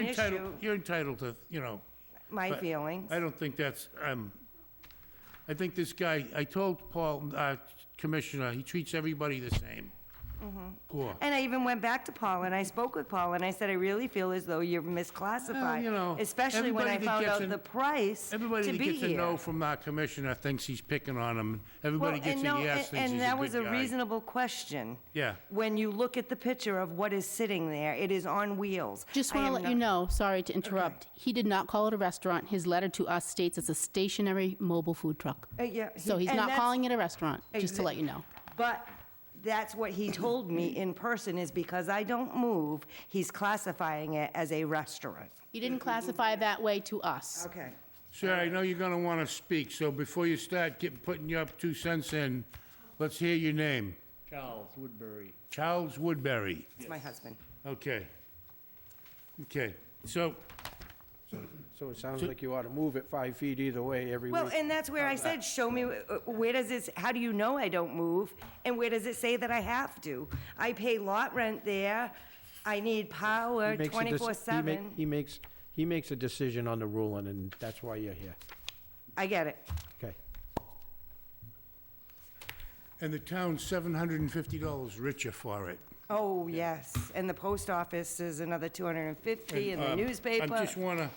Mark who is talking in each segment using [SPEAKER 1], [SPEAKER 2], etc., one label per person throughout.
[SPEAKER 1] issue,
[SPEAKER 2] entitled, you're entitled to, you know.
[SPEAKER 1] my
[SPEAKER 2] but
[SPEAKER 1] feelings.
[SPEAKER 2] I don't think that's, um, I think this guy, I told Paul, uh, Commissioner, he treats everybody the same.
[SPEAKER 1] Mm-hmm.
[SPEAKER 2] Cool.
[SPEAKER 1] And I even went back to Paul and I spoke with Paul and I said, I really feel as though you're
[SPEAKER 2] Well, you know,
[SPEAKER 1] misclassified, especially when I
[SPEAKER 2] everybody that
[SPEAKER 1] found
[SPEAKER 2] gets
[SPEAKER 1] out
[SPEAKER 2] an-
[SPEAKER 1] the price to be here.
[SPEAKER 2] Everybody that gets a no from our commissioner thinks he's picking on him.
[SPEAKER 1] Well,
[SPEAKER 2] Everybody gets
[SPEAKER 1] and
[SPEAKER 2] a
[SPEAKER 1] no,
[SPEAKER 2] yes,
[SPEAKER 1] and-
[SPEAKER 2] thinks he's
[SPEAKER 1] And
[SPEAKER 2] a
[SPEAKER 1] that was a
[SPEAKER 2] good guy.
[SPEAKER 1] reasonable question.
[SPEAKER 2] Yeah.
[SPEAKER 1] When you look at the picture of what is sitting there, it is on wheels. I
[SPEAKER 3] Just want to
[SPEAKER 1] am
[SPEAKER 3] let you
[SPEAKER 1] not-
[SPEAKER 3] know, sorry to interrupt, he did not call it a restaurant. His letter to us states it's a stationary mobile food truck.
[SPEAKER 1] Uh, yeah, he-
[SPEAKER 3] So he's
[SPEAKER 1] and
[SPEAKER 3] not
[SPEAKER 1] that's-
[SPEAKER 3] calling it a restaurant, just to
[SPEAKER 1] Exa-
[SPEAKER 3] let you know.
[SPEAKER 1] But that's what he told me in person, is because I don't move, he's classifying it as a restaurant.
[SPEAKER 3] He didn't
[SPEAKER 1] Mm-hmm.
[SPEAKER 3] classify that way to us.
[SPEAKER 1] Okay.
[SPEAKER 2] Sir, I know you're gonna wanna speak, so before you start getting, putting your two cents in, let's hear your name.
[SPEAKER 4] Charles Woodbury.
[SPEAKER 2] Charles Woodbury.
[SPEAKER 1] It's my husband.
[SPEAKER 2] Okay. Okay, so,
[SPEAKER 5] So it sounds like you ought to move it five feet either way every
[SPEAKER 1] Well,
[SPEAKER 5] week.
[SPEAKER 1] and that's where I said, show me, uh, where does this, how do you know I don't move? And where does it say that I have to? I pay lot rent there, I need power
[SPEAKER 5] He makes a dec- he make-
[SPEAKER 1] twenty-four seven.
[SPEAKER 5] He makes, he makes a decision on the ruling, and that's why you're here.
[SPEAKER 1] I get it.
[SPEAKER 5] Okay.
[SPEAKER 2] and the town's seven hundred and fifty dollars richer for it.
[SPEAKER 1] Oh, yes, and the post office is another two hundred and fifty, and the
[SPEAKER 2] Um,
[SPEAKER 1] newspaper,
[SPEAKER 2] I
[SPEAKER 1] it's
[SPEAKER 2] just wanna,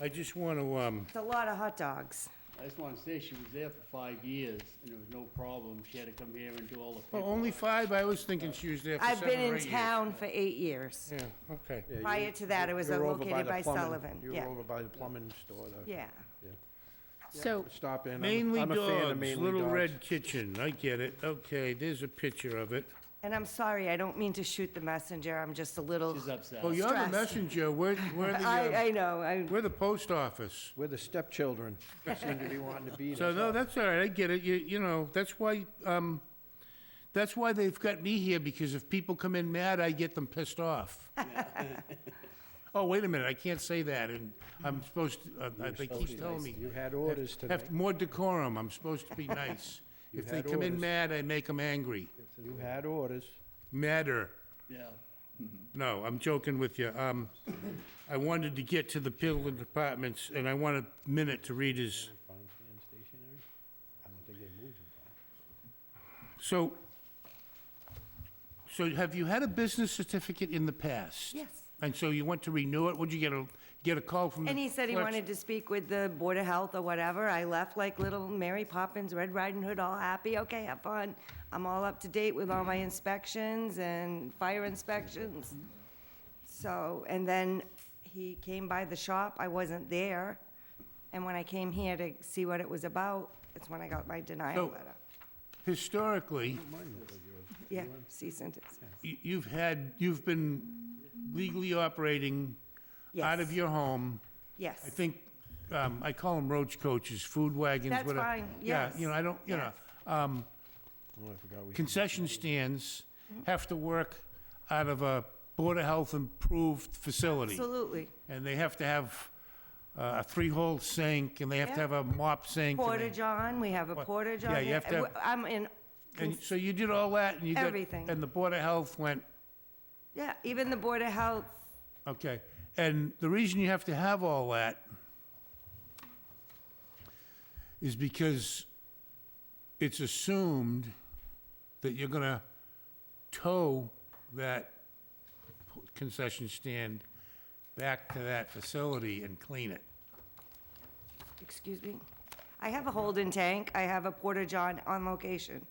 [SPEAKER 2] I just wanna, um,
[SPEAKER 1] a lot of hot dogs.
[SPEAKER 4] I just want to say she was there for five years and there was no problem. She had to come here and do all the
[SPEAKER 2] oh,
[SPEAKER 4] paperwork.
[SPEAKER 2] only five? I was thinking she was there for
[SPEAKER 1] I've
[SPEAKER 2] seven or
[SPEAKER 1] been in
[SPEAKER 2] eight years.
[SPEAKER 1] town for eight years.
[SPEAKER 2] Yeah, okay.
[SPEAKER 5] Yeah, you-
[SPEAKER 1] Prior to that, it was
[SPEAKER 5] you're over
[SPEAKER 1] located
[SPEAKER 5] the
[SPEAKER 1] by
[SPEAKER 5] plumbing-
[SPEAKER 1] Sullivan,
[SPEAKER 5] you were
[SPEAKER 1] yeah,
[SPEAKER 5] over by the plumbing store, the
[SPEAKER 1] yeah.
[SPEAKER 3] So
[SPEAKER 5] stop in. I'm-
[SPEAKER 2] Mainly
[SPEAKER 5] I'm a fan of
[SPEAKER 2] Dogs,
[SPEAKER 5] mainly
[SPEAKER 2] Little
[SPEAKER 5] dogs.
[SPEAKER 2] Red Kitchen, I get it, okay, there's a picture of it.
[SPEAKER 1] And I'm sorry, I don't mean to shoot the messenger, I'm just a little,
[SPEAKER 4] She's upset.
[SPEAKER 2] Oh, you're the
[SPEAKER 1] Stress.
[SPEAKER 2] messenger, we're, we're the,
[SPEAKER 1] I,
[SPEAKER 2] uh,
[SPEAKER 1] I know, I,
[SPEAKER 2] we're the post office.
[SPEAKER 5] We're the stepchildren, seem to be wanting to beat us.
[SPEAKER 2] So, no,
[SPEAKER 5] up.
[SPEAKER 2] that's all right, I get it, you, you know, that's why, um, that's why they've got me here, because if people come in mad, I get them pissed off. Oh, wait a minute, I can't say that, and I'm supposed, to- uh, uh, they keep telling me.
[SPEAKER 5] You had orders tonight.
[SPEAKER 2] Have more decorum, I'm supposed to be nice. If they
[SPEAKER 5] had
[SPEAKER 2] come in
[SPEAKER 5] orders.
[SPEAKER 2] mad, I make them angry.
[SPEAKER 5] You had orders.
[SPEAKER 2] Madder.
[SPEAKER 4] Yeah.
[SPEAKER 2] No, I'm joking with you. Um, I wanted to get to the building departments, and I want a minute to read his. So, so have you had a business certificate in the past?
[SPEAKER 1] Yes.
[SPEAKER 2] And so you went to renew it? Would you get a, get a call from the
[SPEAKER 1] and he said he
[SPEAKER 2] clerk's-
[SPEAKER 1] wanted to speak with the Board of Health or whatever, I left like little Mary Poppins, Red Riding Hood, all happy, okay, have fun. I'm all up to date with all my inspections and fire inspections. So, and then he came by the shop, I wasn't there, and when I came here to see what it was about, that's when I got my denial
[SPEAKER 2] So-
[SPEAKER 1] letter.
[SPEAKER 2] Historically,
[SPEAKER 1] Yeah, cease and desist.
[SPEAKER 2] y- you've had, you've been legally operating out of
[SPEAKER 1] Yes.
[SPEAKER 2] your home.
[SPEAKER 1] Yes.
[SPEAKER 2] I think, um, I call them roach coaches, food wagons,
[SPEAKER 1] That's
[SPEAKER 2] whatever.
[SPEAKER 1] fine,
[SPEAKER 2] Yeah, you know, I don't, you know, um, concession stands have to work out of a Board of Health improved facility.
[SPEAKER 1] Absolutely.
[SPEAKER 2] And they have to have uh, a three-hole sink, and they have to
[SPEAKER 1] Yeah.
[SPEAKER 2] have a mop sink. and they-
[SPEAKER 1] Porta john, we have a
[SPEAKER 2] What?
[SPEAKER 1] porta john.
[SPEAKER 2] Yeah, you have to
[SPEAKER 1] here.
[SPEAKER 2] have-
[SPEAKER 1] I'm in,
[SPEAKER 2] And so you did all that, and you got.
[SPEAKER 1] Everything.
[SPEAKER 2] And the Board of Health went,
[SPEAKER 1] yeah, even the Board of Health,
[SPEAKER 2] Okay, and the reason you have to have all that is because it's assumed that you're gonna tow that concession stand back to that facility and clean it.
[SPEAKER 1] excuse me. I have a Holden tank, I have a porta john on location.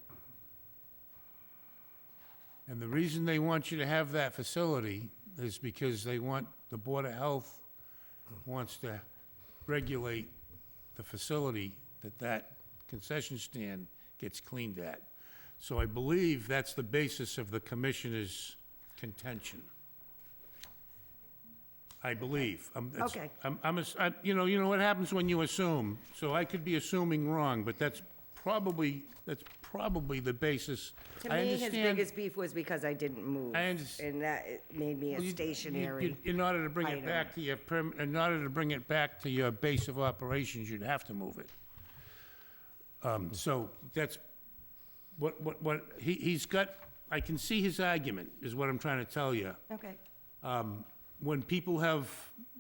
[SPEAKER 2] And the reason they want you to have that facility is because they want, the Board of Health wants to regulate the facility that that concession stand gets cleaned at. So I believe that's the basis of the commissioner's contention. I believe. I'm- it's-
[SPEAKER 1] Okay.
[SPEAKER 2] I'm, I'm, ass- I- you know, you know what happens when you assume, so I could be assuming wrong, but that's probably, that's probably the basis.
[SPEAKER 1] To
[SPEAKER 2] I
[SPEAKER 1] me, his
[SPEAKER 2] understand-
[SPEAKER 1] biggest beef was because I didn't move.
[SPEAKER 2] I underst-
[SPEAKER 1] And that made me
[SPEAKER 2] Well,
[SPEAKER 1] a
[SPEAKER 2] you- you-
[SPEAKER 1] stationary.
[SPEAKER 2] you- In order to bring it
[SPEAKER 1] item.
[SPEAKER 2] back to your, perm- in order to bring it back to your base of operations, you'd have to move it. Um, So that's, what, what, what, he, he's got, I can see his argument, is what I'm trying to tell you.
[SPEAKER 1] Okay.
[SPEAKER 2] Um, When people have